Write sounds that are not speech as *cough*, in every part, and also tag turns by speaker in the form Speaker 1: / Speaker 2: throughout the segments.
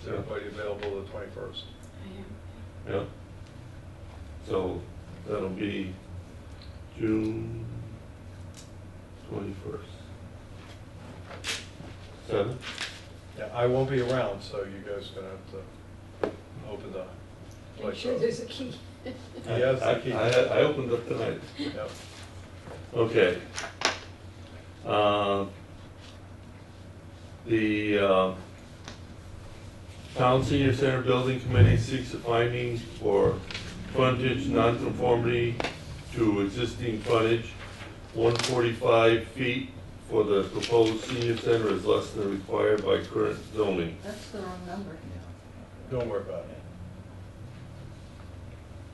Speaker 1: Is everybody available the twenty-first?
Speaker 2: Yeah. So that'll be June twenty-first. Seven?
Speaker 1: Yeah, I won't be around, so you guys are gonna have to open the
Speaker 3: Make
Speaker 1: place
Speaker 3: sure
Speaker 1: up.
Speaker 3: there's a key.
Speaker 4: *laughs*
Speaker 1: He has the
Speaker 2: I-
Speaker 1: key.
Speaker 2: I, I opened up tonight.
Speaker 1: Yep.
Speaker 2: Okay. Um, The um, Town Senior Center Building Committee seeks a finding for frontage nonconformity to existing frontage. One forty-five feet for the proposed senior center is less than required by current zoning.
Speaker 4: That's the wrong number.
Speaker 1: Don't worry about it.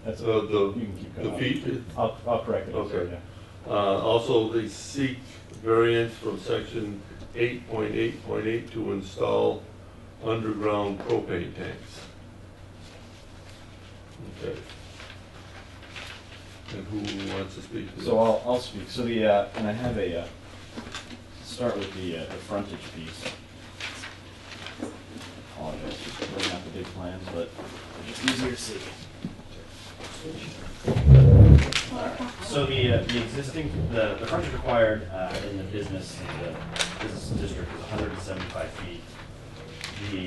Speaker 5: That's,
Speaker 2: So
Speaker 1: Uh,
Speaker 2: the,
Speaker 5: you can keep
Speaker 2: the
Speaker 5: going.
Speaker 2: feet,
Speaker 5: I'll, I'll correct it.
Speaker 2: Okay.
Speaker 5: yeah.
Speaker 2: Uh, Also, they seek variance from section 8.8.8 to install underground propane tanks. Okay. And who wants to speak to this?
Speaker 5: So I'll, I'll speak, so the, uh, and I have a, uh, start with the, uh, the frontage piece. Apologize, for bringing out the big plans, but it's just easier to see. So the, uh, the existing, the, the frontage required, uh, in the business, the business district is hundred and seventy-five feet. The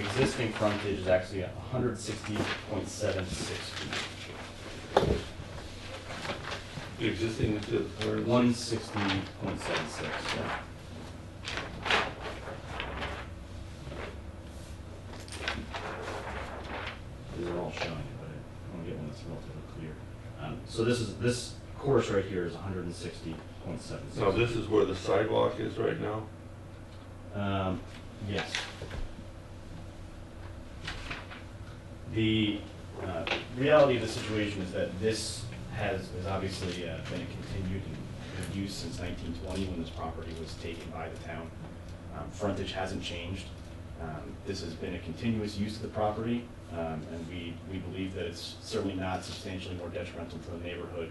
Speaker 5: existing frontage is actually hundred sixty point seven six feet.
Speaker 2: The Existing is the current-
Speaker 5: One sixty point seven six, yeah. These are all showing, but I wanna get one that's relatively clear. Um, so this is, this course right here is hundred and sixty point seven six.
Speaker 2: Now, this is where the sidewalk is right now?
Speaker 5: Um, yes. The, uh, reality of the situation is that this has, has obviously uh, been continued in use since nineteen twenty when this property was taken by the town. Um, frontage hasn't changed. Um, this has been a continuous use of the property, um, and we, we believe that it's certainly not substantially more detrimental to the neighborhood.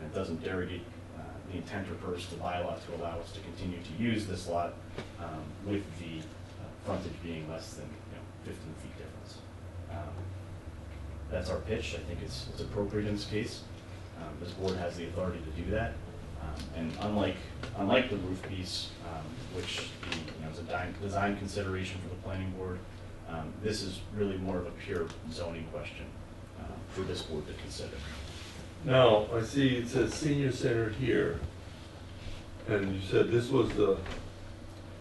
Speaker 5: And it doesn't derogate, uh, the intent or purpose of the bylaw to allow us to continue to use this lot, um, with the uh, frontage being less than, you know, fifteen feet difference. Um, That's our pitch, I think it's, it's appropriate in this case. Um, This board has the authority to do that. Um, And unlike, unlike the roof piece, um, which, the, you know, is a di- design consideration for the planning board, um, this is really more of a pure zoning question uh, for this board to consider.
Speaker 2: Now, I see it says senior center here. And you said this was the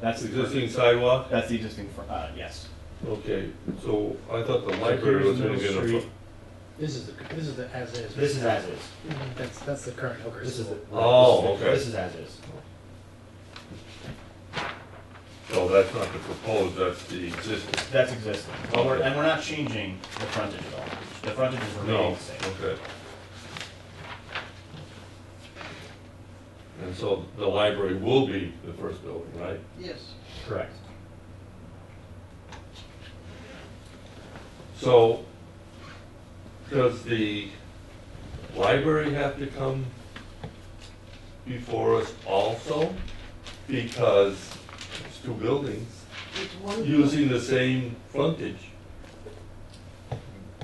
Speaker 5: That's the
Speaker 2: existing sidewalk?
Speaker 5: That's the existing, fr- uh, yes.
Speaker 2: Okay, so I thought the library was gonna get a...
Speaker 6: This is the, this is the as is.
Speaker 5: This is as is.
Speaker 6: Mhm, That's, that's the current Hooker
Speaker 5: This is
Speaker 6: School.
Speaker 5: the.
Speaker 2: Oh, okay.
Speaker 5: This is as is.
Speaker 2: Oh, that's not the proposed, that's the existing.
Speaker 5: That's existing. Well, we're, and we're not changing the frontage at all. The frontage is remaining
Speaker 2: No,
Speaker 5: the same.
Speaker 2: okay. And so the library will be the first building, right?
Speaker 4: Yes.
Speaker 5: Correct.
Speaker 2: So, does the library have to come before us also? Because it's two buildings
Speaker 4: It's one.
Speaker 2: using the same frontage.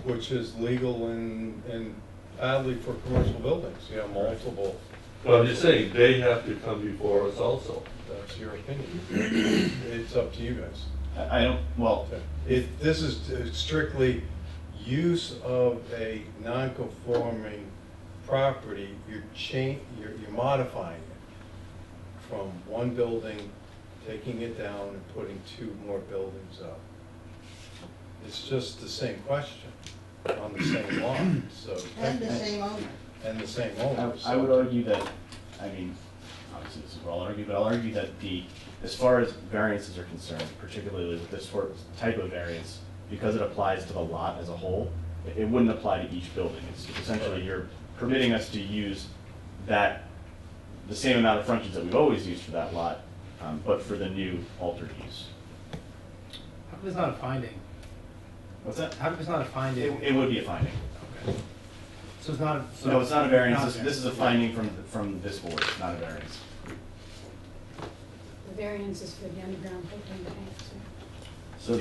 Speaker 1: Which is legal in, in Hadley for commercial buildings, you have multiple,
Speaker 2: But I'm just saying, they have to come before us also.
Speaker 1: that's your opinion. It's up to you guys.
Speaker 5: I, I don't, well,
Speaker 1: If, this is strictly use of a non-conforming property, you're chang, you're, you're modifying it from one building, taking it down and putting two more buildings up. It's just the same question on the same lot, so.
Speaker 4: And the same owner.
Speaker 1: And the same
Speaker 5: I,
Speaker 1: owner.
Speaker 5: I would
Speaker 1: so-
Speaker 5: argue that, I mean, obviously this is what I'll argue, but I'll argue that the, as far as variances are concerned, particularly with this sort of type of variance, because it applies to the lot as a whole, it, it wouldn't apply to each building. It's essentially you're permitting us to use that, the same amount of frontage that we've always used for that lot, um, but for the new altered use.
Speaker 6: How come it's not a finding?
Speaker 5: What's that?
Speaker 6: How come it's not a
Speaker 5: It,
Speaker 6: finding?
Speaker 5: it would be a finding.
Speaker 6: Okay. So it's not, a- so.
Speaker 5: No, it's not a variance, this,
Speaker 6: variance.
Speaker 5: this is a finding from, from this board, It's not a variance.
Speaker 3: The variance is for the underground propane tanks.